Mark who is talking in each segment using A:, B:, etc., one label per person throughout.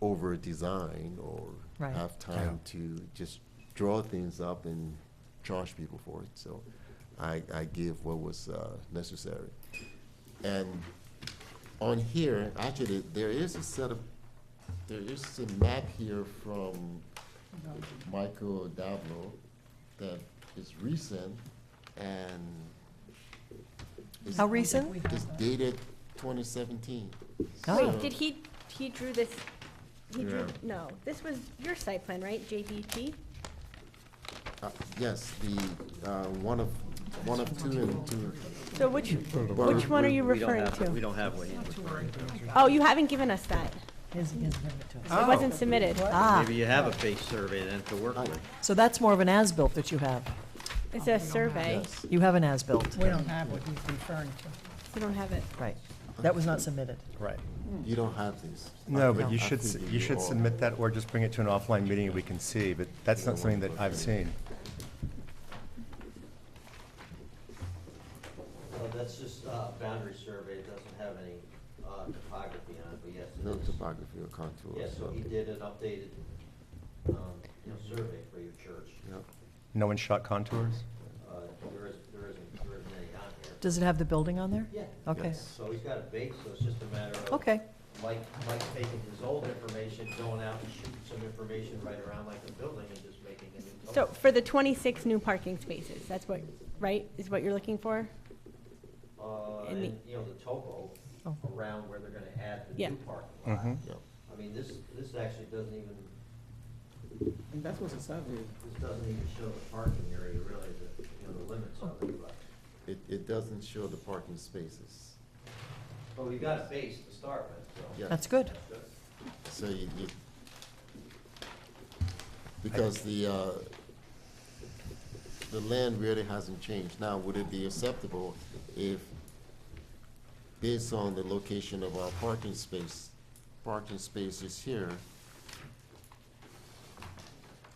A: over design or
B: Right.
A: have time to just draw things up and charge people for it. So I, I give what was uh, necessary. And on here, actually, there is a set of, there is a map here from Michael Dablo that is recent and. is-
B: How recent?
A: It's dated twenty seventeen.
B: Oh.
C: Wait, did he, he drew this, he drew,
A: Yeah.
C: no, this was your site plan, right, JDT?
A: Uh, Yes, the, uh, one of, one of two and two.
C: So which,
A: Well,
C: which one are you
D: We don't
C: referring
D: have- We
C: to?
D: don't have what you,
C: Oh, you haven't given us that. It wasn't submitted.
B: Ah,
D: maybe you have a face survey then to work with.
B: so that's more of an as-built that you have.
C: It's a survey.
A: Yes,
B: You have an as-built,
E: We don't have what he's referring to.
C: You don't have it.
B: right. That was not submitted.
F: Right.
A: you don't have this.
F: No,
A: I
F: but you
A: think- I
F: should,
A: think
F: s-
A: we
F: you should
A: all-
F: submit that or just bring it to an offline meeting and we can see, but that's not something that I've seen.
D: Oh, That's just a boundary survey, it doesn't have any uh, topography on it, but yes,
A: No topography or contour. or something.
D: an updated, um, survey for your church. Uh,
A: Yep.
F: No one shot contours?
D: There isn't, there isn't, there isn't any on here.
B: Does it have the building on there?
D: Yeah.
B: Okay,
A: Yes.
D: So he's got a base, so it's just a matter of.
B: okay,
D: Mike, Mike taking his old information, going out and shooting some information right around like the building and just making a new.
C: So
A: Oh.
D: total.
C: for the twenty-six new parking spaces, that's what, right, is what you're looking for?
D: Uh,
C: And the-
D: and, you know, the topo
B: Oh.
D: around where they're gonna add the
C: Yeah.
D: new parking lot.
F: Mhm.
A: Yep.
D: I mean, this, this actually doesn't even,
G: And that's what's a survey.
D: this doesn't even show the parking area really, the, you know, the limits of it, but,
A: It, it doesn't show the parking spaces.
D: but we've got a base to start with, so.
A: Yeah.
B: that's good.
D: That's good.
A: So you, you, because the, uh, the land really hasn't changed. Now, would it be acceptable if, based on the location of our parking space, parking spaces here,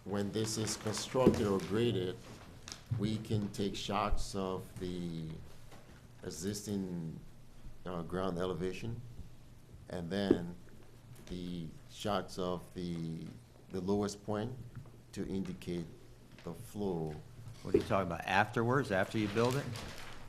A: when this is constructed or graded, we can take shots of the existing, uh, ground elevation? and then the shots of the, the lowest point to indicate the flow.
D: What are you talking about, afterwards, after you build it?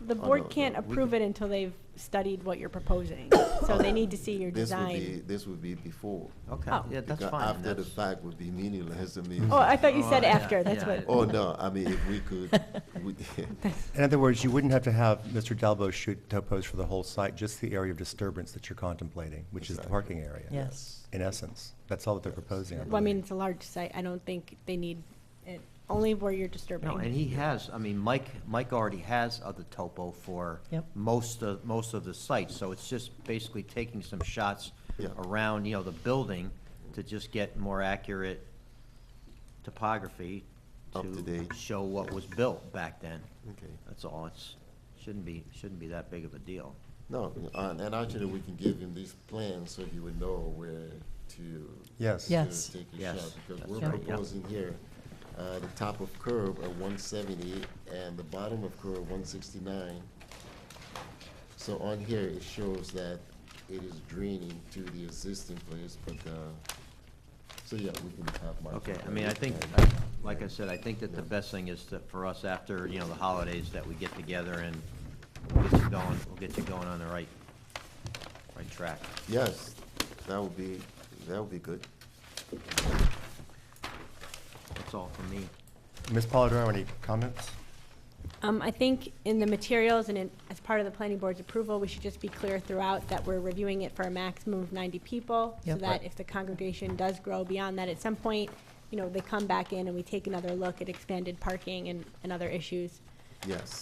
C: The
A: Oh, no,
C: board can't
A: no, we
C: approve
A: can-
C: it until they've studied what you're proposing, so they need to see your
A: This would
C: design.
A: be, this would be before.
D: Okay,
C: Oh.
D: yeah, that's
A: Because
D: fine.
A: After the
D: that's-
A: fact would be meaningless, I mean.
C: Oh, I thought you
D: Oh,
C: said
D: yeah,
C: after, that's
D: yeah,
C: what.
A: Oh, no, I mean, if we could, we-
F: In other words, you wouldn't have to have Mr. Dalbo shoot topos for the whole site, just the area of disturbance that you're contemplating, which is the
A: Exactly.
F: parking area.
B: Yes.
F: In essence, that's all that they're proposing.
C: Well, I mean,
F: believe.
C: it's a large site, I don't think they need it, only where you're disturbing.
D: No, and he has, I mean, Mike, Mike already has other topo for
B: Yep.
D: most of, most of the sites, so it's just basically taking some shots
A: Yeah.
D: around, you know, the building to just get more accurate topography
A: Up to
D: to
A: date.
D: show what was built back then.
A: Okay.
D: That's all, it's, shouldn't be, shouldn't be that big of a deal.
A: No, and and actually, we can give him these plans so he would know where to.
F: Yes.
A: to
B: Yes.
A: Take a
D: Yes,
A: shot, because
D: that's
A: we're
D: right, yeah.
A: proposing here, uh, the top of curb at one seventy and the bottom of curb one sixty-nine. So on here, it shows that it is draining to the existing place, but, uh, so yeah, we can have Mike.
D: Okay,
A: look
D: I
A: at
D: mean, I
A: it
D: think,
A: and-
D: I- like I said, I think that the best thing is that for us after, you know, the holidays, that we get together and we'll get you going, we'll get you going on the right, right track.
A: Yes, that would be, that would be good.
D: That's all from me.
F: Ms. Polidoro, any comments?
C: Um, I think in the materials and in, as part of the planning board's approval, we should just be clear throughout that we're reviewing it for a maximum of ninety people. So
B: Yep.
C: that if the congregation does grow beyond that at some point, you know, they come back in and we take another look at expanded parking and, and other issues.
A: Yes,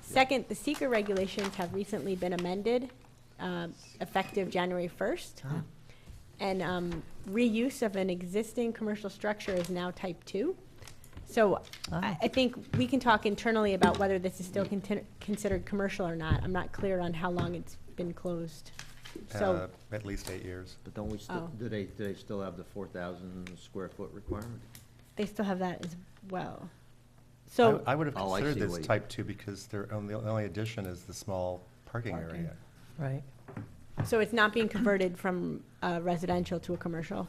C: Second, the seeker regulations have recently been amended, um, effective January first. And um, reuse of an existing commercial structure is now type two. So I,
B: Ah.
C: I think we can talk internally about whether this is still contin- considered commercial or not. I'm not clear on how long it's been closed. So,
F: Uh, At least eight years.
D: But don't we still,
C: Oh.
D: do they, do they still have the four thousand square foot requirement?
C: they still have that as well.
F: I
C: So.
F: w- I would have
D: Oh, I
F: considered
D: see
F: this
D: what you-
F: type two because their only, the only addition is the small parking area.
B: Right.
C: So it's not being converted from uh, residential to a commercial?